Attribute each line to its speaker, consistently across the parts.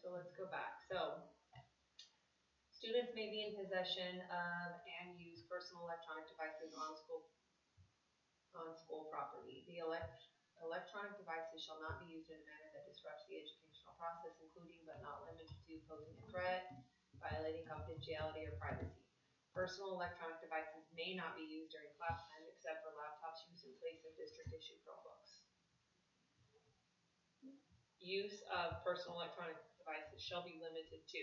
Speaker 1: so let's go back. So, students may be in possession of and use personal electronic devices on school, on school property. The elect, electronic devices shall not be used in a manner that disrupts the educational process, including but not limited to posing a threat, violating confidentiality or privacy. Personal electronic devices may not be used during class time except for laptops used in place of district-issued Chromebooks. Use of personal electronic devices shall be limited to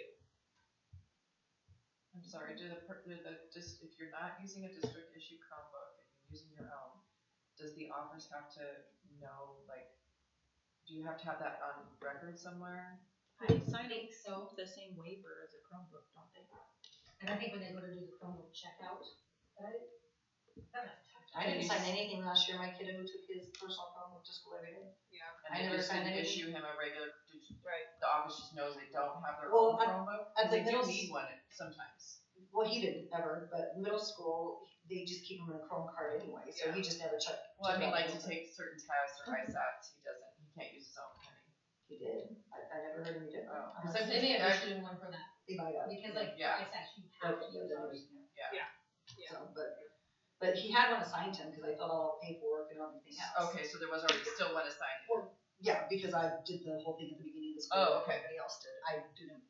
Speaker 2: I'm sorry, do the, per- do the, just, if you're not using a district issued Chromebook and you're using your own, does the office have to know, like, do you have to have that on record somewhere?
Speaker 3: They sign it, so the same waiver as a Chromebook, don't they?
Speaker 4: And I think when they go to do the Chromebook checkout, but
Speaker 2: I
Speaker 4: I, I
Speaker 2: didn't
Speaker 4: didn't
Speaker 2: use-
Speaker 4: sign anything last year, my kiddo took his personal Chromebook to school every day.
Speaker 1: Yeah,
Speaker 4: I
Speaker 2: And they
Speaker 4: never
Speaker 2: just
Speaker 4: signed
Speaker 2: didn't issue
Speaker 4: anything.
Speaker 2: him a regular, did-
Speaker 1: right.
Speaker 2: the office just knows they don't have their
Speaker 4: Well,
Speaker 2: own
Speaker 4: at-
Speaker 2: Chromebook?
Speaker 4: at
Speaker 2: 'Cause
Speaker 4: the
Speaker 2: they do
Speaker 4: middle s-
Speaker 2: need one sometimes.
Speaker 4: Well, he didn't ever, but middle school, they just keep him in a Chrome card anyway, so he just never checked.
Speaker 2: Well, I mean, like to
Speaker 4: checked out.
Speaker 2: take certain tests or
Speaker 4: Mhm.
Speaker 2: ISATs, he doesn't, he can't use his own, can he?
Speaker 4: He did, I, I never heard him, he did.
Speaker 2: Oh.
Speaker 4: Uh,
Speaker 2: Cause
Speaker 3: So
Speaker 2: I'm
Speaker 3: maybe
Speaker 2: thinking,
Speaker 3: I
Speaker 2: actually,
Speaker 3: should do one for that,
Speaker 4: They might have.
Speaker 3: because like,
Speaker 2: Yeah.
Speaker 3: I said, you have to use ours.
Speaker 1: Yeah.
Speaker 4: So, but, but he had one assigned to him, cause I filled out all the paperwork and everything else.
Speaker 2: okay, so there was already still one assigned.
Speaker 4: Yeah, because I did the whole thing at the beginning of the school.
Speaker 2: Oh, okay.
Speaker 4: Everybody else did, I didn't,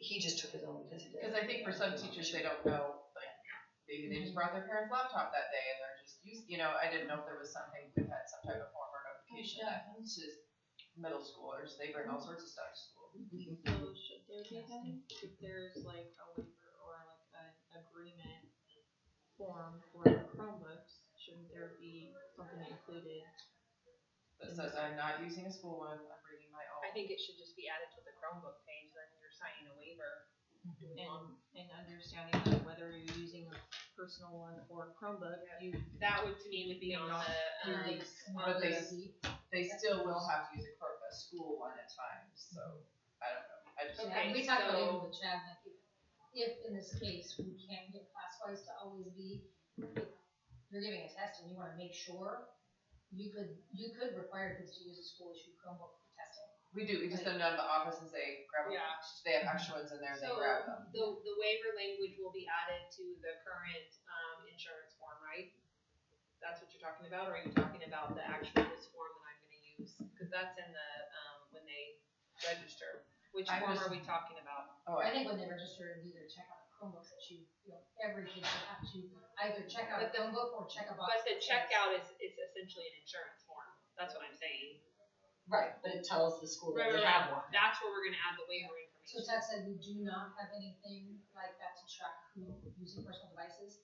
Speaker 4: he just took his own because he did.
Speaker 2: Because I think for some teachers, they don't know, like, maybe they just brought their parents' laptop that day and they're just used, you know, I didn't know if there was something, we had some type of form or notification that happens to middle schoolers, they bring all sorts of stuff to school.
Speaker 3: So should there be then, if there's like a waiver or like an agreement form for Chromebooks, shouldn't there be something included?
Speaker 2: That says, I'm not using a school one, I'm bringing my
Speaker 1: I
Speaker 2: own.
Speaker 1: think it should just be added to the Chromebook page, then you're signing a waiver.
Speaker 3: And, and understanding that whether you're using a personal one or Chromebook, you.
Speaker 1: That would, to me, would be on the, um, on
Speaker 2: But they,
Speaker 1: the-
Speaker 2: they still will have to use a, cro- a school one at times, so, I don't know, I just.
Speaker 1: Okay,
Speaker 5: Yeah, we talked about
Speaker 1: so-
Speaker 5: it with Chad, like, if in this case, we can get class-wise to always be, if you're giving a test and you wanna make sure, you could, you could require kids to use a school issue Chromebook for testing.
Speaker 2: We do, we just send them to the office and say, grab,
Speaker 1: Yeah.
Speaker 2: they have extra ones in there and they
Speaker 1: So,
Speaker 2: grab them.
Speaker 1: The, the waiver language will be added to the current, um, insurance form, right? That's what you're talking about, or are you talking about the actual, this form that I'm gonna use? Cause that's in the, um, when they register. Which
Speaker 2: I
Speaker 1: form
Speaker 2: was-
Speaker 1: are we talking about?
Speaker 2: Oh,
Speaker 5: I
Speaker 2: I,
Speaker 5: think when they register and do their checkout of Chromebooks, that you, you know, every kid should have to either check out a
Speaker 1: But the-
Speaker 5: Chromebook or check a box.
Speaker 1: But the checkout is, is essentially an insurance form, that's what I'm saying.
Speaker 4: Right, but it tells the school
Speaker 1: Right,
Speaker 4: that
Speaker 1: right,
Speaker 4: they have one.
Speaker 1: right, that's where we're gonna add the waiver
Speaker 5: So
Speaker 1: information.
Speaker 5: Chad said we do not have anything like that to track who using personal devices,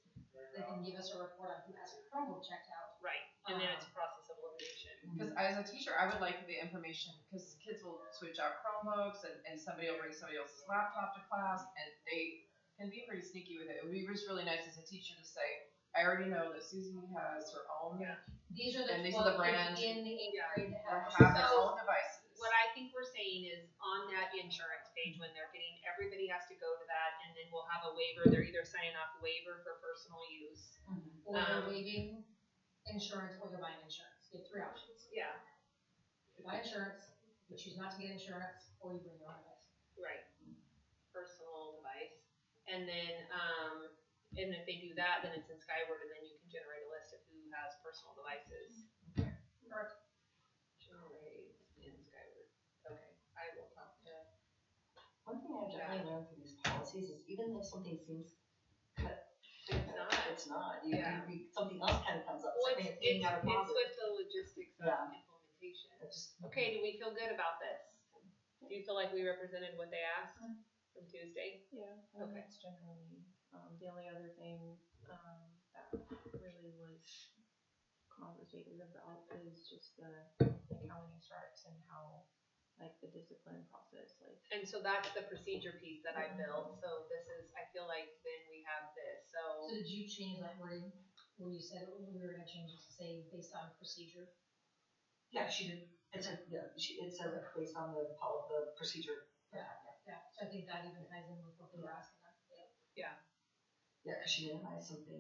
Speaker 5: they can give us a report on who has a Chromebook checked out,
Speaker 1: Right, and then it's a process of elimination.
Speaker 2: Because as a teacher, I would like the information, because kids will switch out Chromebooks and, and somebody will bring somebody else's laptop to class and they can be pretty sneaky with it. It would be just really nice as a teacher to say, I already know that Susan has her own,
Speaker 1: Yeah.
Speaker 5: These are
Speaker 2: And
Speaker 5: the
Speaker 2: these are the
Speaker 5: twelve
Speaker 2: brands.
Speaker 5: kids in the eighth
Speaker 1: Yeah.
Speaker 5: grade that
Speaker 2: or
Speaker 5: have.
Speaker 2: have
Speaker 1: So-
Speaker 2: their own devices.
Speaker 1: What I think we're saying is on that insurance page, when they're getting, everybody has to go to that and then we'll have a waiver. They're either signing off waiver for personal use.
Speaker 5: Or
Speaker 1: Um,
Speaker 5: they're waiving insurance or they're buying insurance. You have three options.
Speaker 1: Yeah.
Speaker 5: You buy insurance, you choose not to get insurance, or you bring your own device.
Speaker 1: Right. Personal device. And then, um, and if they do that, then it's in Skyward and then you can generate a list of who has personal devices.
Speaker 5: Correct.
Speaker 1: Generate in Skyward. Okay, I will talk to.
Speaker 4: One thing I've definitely learned from these policies is even though something seems cut,
Speaker 1: It's not.
Speaker 4: it's not. You- you-
Speaker 1: Yeah.
Speaker 4: you- Something else kind of comes up,
Speaker 1: Well,
Speaker 4: something
Speaker 1: it's, it's,
Speaker 4: that's being out of
Speaker 1: it's
Speaker 4: pocket.
Speaker 1: with the logistics of
Speaker 4: Yeah.
Speaker 1: implementation.
Speaker 4: It's just-
Speaker 1: Okay, do we feel good about this? Do you feel like we represented what they asked from Tuesday?
Speaker 3: Yeah, I mean,
Speaker 1: Okay.
Speaker 3: that's generally, um, the only other thing, um, that really was conversated about is just the, like, how many stripes and how, like, the discipline process, like,
Speaker 1: And so that's the procedure piece that I built, so this is, I feel like then we have this,
Speaker 5: So
Speaker 1: so,
Speaker 5: did you change that wording where you said we were gonna change it to say based on procedure?
Speaker 4: Yeah, she did, it's a, yeah, she, it says it based on the pol, the procedure.
Speaker 5: Yeah, so I think that even ties in with what they were asking. us.
Speaker 4: Yeah, cause she didn't buy something.